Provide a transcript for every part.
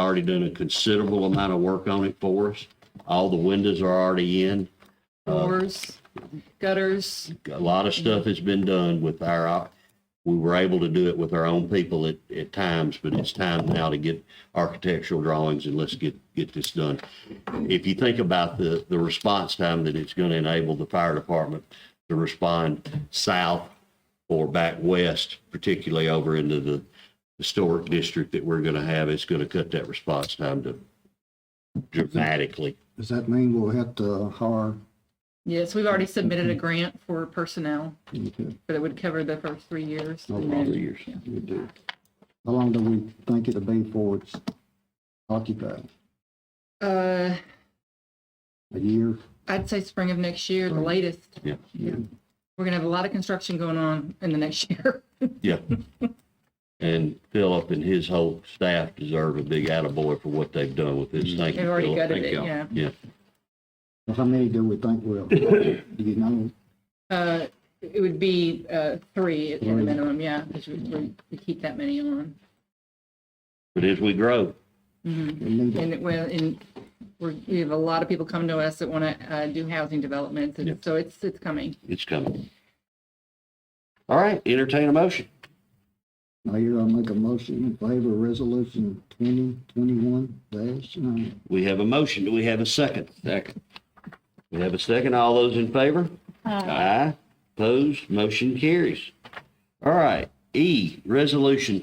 already done a considerable amount of work on it for us. All the windows are already in. doors, gutters, a lot of stuff has been done with our, op- we were able to do it with our own people at, at times, but it's time now to get architectural drawings and let's get, get this done. If you think about the, the response time that it's going to enable the fire department to respond south or back west, particularly over into the historic district that we're going to have, it's going to cut that response time to dramatically. Does that mean we'll have to hire? yes, we've already submitted a grant for personnel, but it would cover the first three years. and over the then- years. We do. How long do we think it'll be before it's occupied? Uh, A year? I'd say spring of next year, the latest. Yeah. Yeah. We're gonna have a lot of construction going on in the next year. Yeah. And Philip and his whole staff deserve a big attaboy for what they've done with this. Thank you, They've already Philip. gutted Thank it, y'all. yeah. Yeah, Well, How many do we think will? Do you know? Uh, it would be, uh, three at the Three. minimum, yeah, because we, we- we keep that many on. but as we grow, Mhm. We need to- And it, well, and we're, we have a lot of people come to us that wanna, uh, do housing developments, Yeah. and so it's, it's coming. it's coming. All right, entertain a motion. Mayor, I'll make a motion in favor of resolution twenty twenty-one dash nine. We have a motion. Do we have a second? Second. We have a second. All those in favor? Aye. Opposed? Motion carries. All right. E, Resolution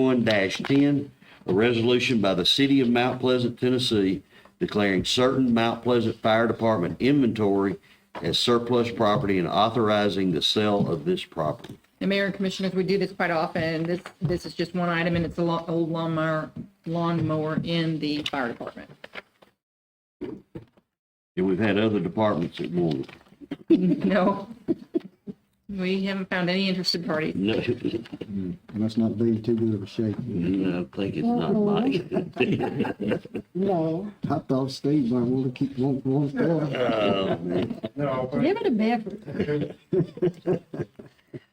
2021-10, a resolution by the City of Mount Pleasant, Tennessee, declaring certain Mount Pleasant Fire Department inventory as surplus property and authorizing the sale of this property. And Mayor and Commissioners, we do this quite often. This, this is just one item, and it's a lo- old lawnmower, lawnmower in the fire department. And we've had other departments that want it. No. We haven't found any interested parties. No, Must not be in too good of a shape. no, I think it's not mine. No. I thought Steve might want to keep, want, want that. Oh, man. No, but Give it a beverage.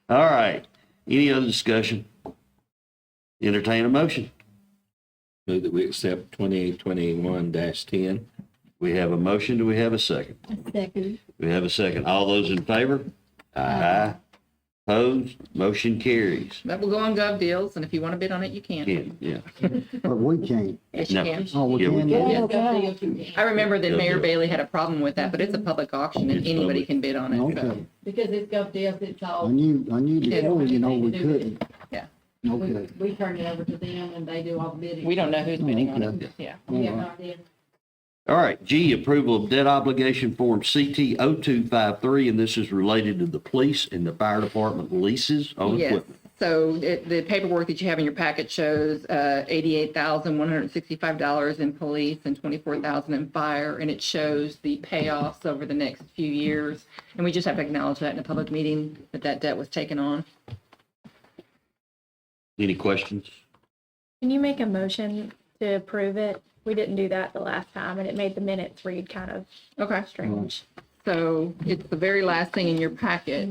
All right. Any other discussion? Entertain a motion. Move that we accept twenty twenty-one ten. We have a motion. Do we have a second? Second. We have a second. All those in favor? Aye. Opposed? Motion carries. That will go on Gov Deals, and if you want to bid on it, you can. Ken, yeah. But we can't. Yes, you No. can. Oh, we Yeah, we can. can. Yeah. Okay. I remember that Gov Mayor Deals. Bailey had a problem with that, but it's a public auction, and It's anybody public. can bid on it. so. Okay. Because it's gov deals, it's I all, knew, I knew before, you know, we couldn't. Yeah. we, Okay. we turn it over to them and they do all the bidding. We don't know who's bidding on it. Yeah. We have no idea. All right, G, approval of debt obligation form oh CT 0253, and this is related to the police and the fire department leases on Yes, equipment. so it- the paperwork that you have in your packet shows uh, $88,165 in police and $24,000 in fire, and it shows the payoffs over the next few years. And we just have to acknowledge that in a public meeting, that that debt was taken on. Any questions? Can you make a motion to approve it? We didn't do that the last time, and it made the minutes read kind of Okay. strange. So it's the very last thing in your packet.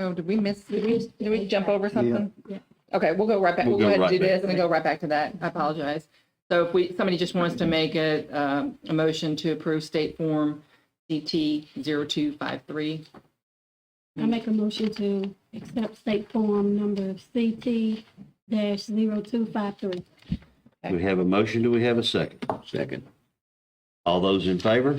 Oh, did we miss, did we, did we jump over something? Yeah. Okay, we'll go right back, We'll we'll go go ahead and do right back. this and then go right back to that. I apologize. So if we, somebody just wants to make a, um, a motion to approve state form DT 0253. I make a motion to accept state form number CT dash zero two five three. Do we have a motion? Do we have a second? Second. All those in favor?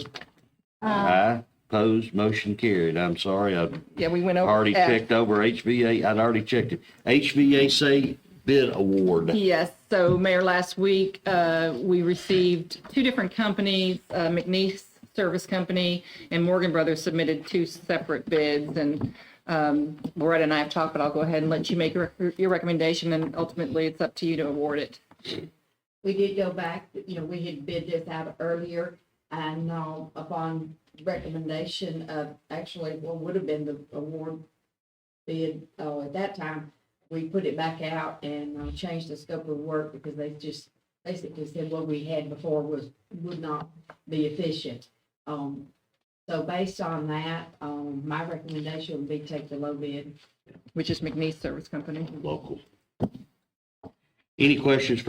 Aye. Opposed? Motion carried. I'm sorry, I Yeah, we went over. Already F. checked over HVA, I'd already checked it. HVAC bid award. Yes, so Mayor, last week, uh, we received two different companies, uh, McNeese Service Company and Morgan Brothers submitted two separate bids. And um, Loretta and I have talked, but I'll go ahead and let you make your your recommendation, and ultimately, it's up to you to award it. We did go back, you know, we had bid this out earlier and, um, upon recommendation of, actually, what would have been the award bid, uh, at that time, we put it back out and, uh, changed the scope of work because they just basically said what we had before was, would not be efficient. Um, so based on that, um, my recommendation would be take the low bid. which is McNeese Service Company. Local. Any questions for